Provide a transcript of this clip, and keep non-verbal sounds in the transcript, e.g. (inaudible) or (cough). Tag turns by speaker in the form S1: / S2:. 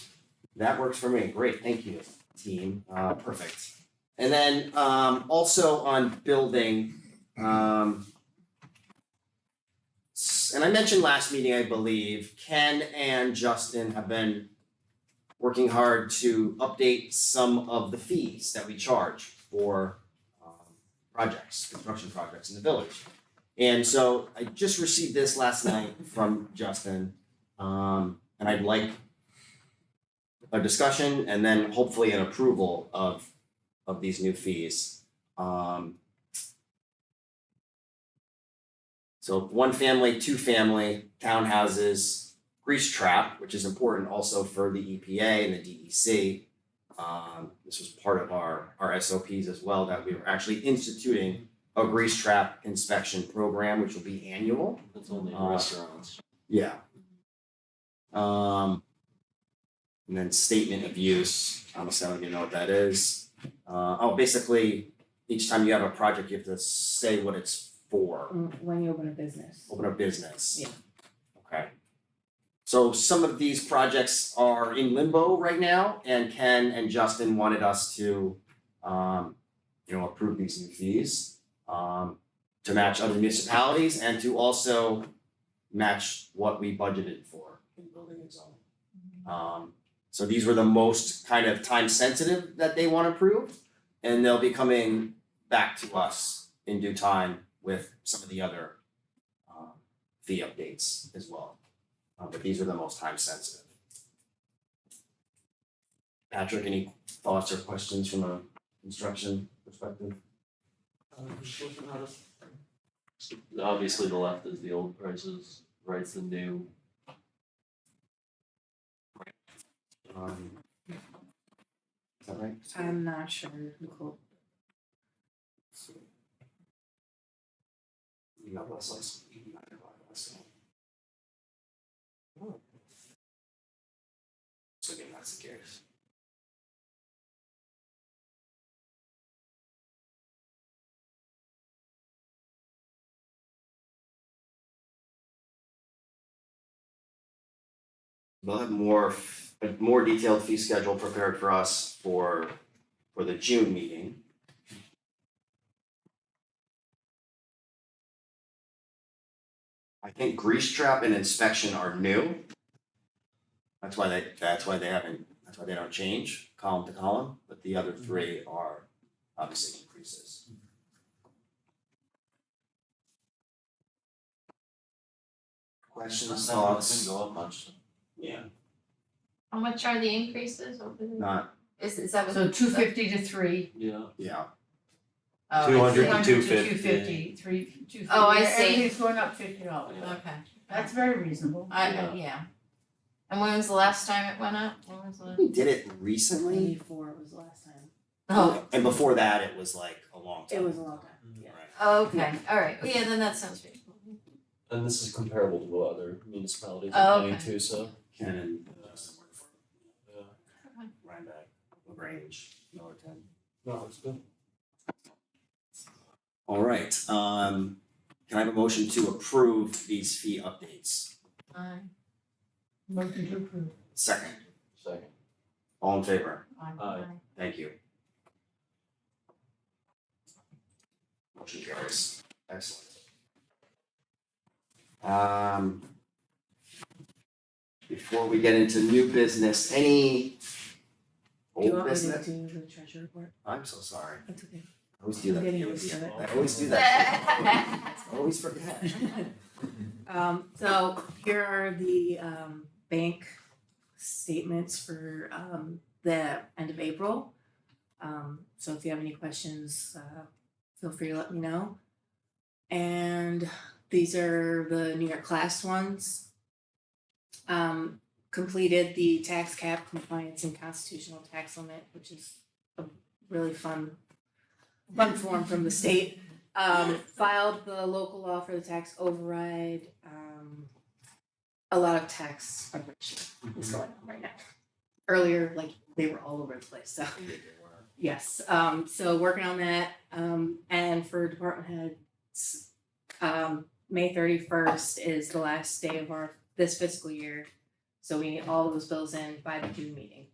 S1: That works for me. Great, thank you, team. Uh, perfect. And then, um, also on building, um, s- and I mentioned last meeting, I believe, Ken and Justin have been working hard to update some of the fees that we charge for, um, projects, construction projects in the village. And so I just received this last night from Justin, um, and I'd like a discussion and then hopefully an approval of of these new fees. Um. So one family, two family, townhouses, grease trap, which is important also for the EPA and the DEC. Um, this was part of our our SOPs as well, that we were actually instituting a grease trap inspection program, which will be annual.
S2: It's only
S1: Uh,
S2: restaurants.
S1: Yeah. Um. And then statement of use, honestly, I don't even know what that is. Uh, oh, basically, each time you have a project, you have to say what it's for,
S3: when you open a business.
S1: open a business.
S3: Yeah.
S1: Okay. So some of these projects are in limbo right now, and Ken and Justin wanted us to, um, you know, approve these new fees. Um, to match other municipalities and to also match what we budgeted for in building and zoning. Um, so these were the most kind of time sensitive that they want approved, and they'll be coming back to us in due time with some of the other um, fee updates as well. Uh, but these are the most time sensitive. Patrick, any thoughts or questions from a construction perspective?
S2: So Obviously, the left is the old prices, right's the new.
S1: Um, is that right?
S3: I'm not sure, Nicole.
S1: You got less license. you got less license. Oh. So again, that's the case. We'll have more, f- a more detailed fee schedule prepared for us for, for the June meeting. I think grease trap and inspection are new. That's why they, that's why they haven't, that's why they don't change column to column, but the other three are obviously increases. Questions, thoughts?
S2: Didn't go up much.
S1: Yeah.
S4: How much are the increases over the?
S1: Not,
S4: Is, is that what?
S5: So two fifty to three.
S2: Yeah,
S1: yeah,
S5: uh,
S6: 200 to
S5: 200 to
S6: 250.
S5: 250, three, two fifty.
S4: Oh, I see.
S5: Everything's going up fifty dollars.
S2: Yeah.
S5: Okay. That's very reasonable.
S4: I,
S2: Yeah.
S4: yeah. And when was the last time it went up? When was the?
S1: we did it recently,
S3: Ninety-four was the last time.
S4: Oh,
S1: and before that, it was like a long time.
S3: It was a long time, yeah.
S4: oh, okay, all right, yeah, then that sounds reasonable.
S2: and this is comparable to what other municipalities
S4: Oh,
S2: are paying
S4: okay.
S2: too, so.
S1: Ken and Justin worked for
S2: yeah.
S1: Rhinebeck, LaGrange, Millerton.
S2: No, it's good.
S1: All right, um, can I have a motion to approve these fee updates?
S4: Aye.
S5: Motion to approve.
S1: Second,
S2: Second.
S1: all in favor?
S2: Aye.
S1: Thank you. Motion carries. Excellent. Um, before we get into new business, any
S3: Do you
S1: old
S3: want me to
S1: business?
S3: do the treasure report?
S1: I'm so sorry.
S3: That's okay.
S1: I always do that.
S3: I'm getting
S1: to you.
S3: used to it.
S1: I always do that.
S4: (laughs)
S1: I Always forget.
S3: (laughs) Um, so here are the um bank statements for um the end of April. Um, so if you have any questions, uh, feel free to let me know. And these are the New York class ones. Um, completed the tax cap compliance and constitutional tax limit, which is a really fun fun form from the state um, filed the local law for the tax override. Um, a lot of tax preparation is going on right now. Earlier, like they were all over the place. So yes, um, so working on that. Um, and for department heads, um, May thirty first is the last day of our this fiscal year. So we need all of those bills in by the June meeting.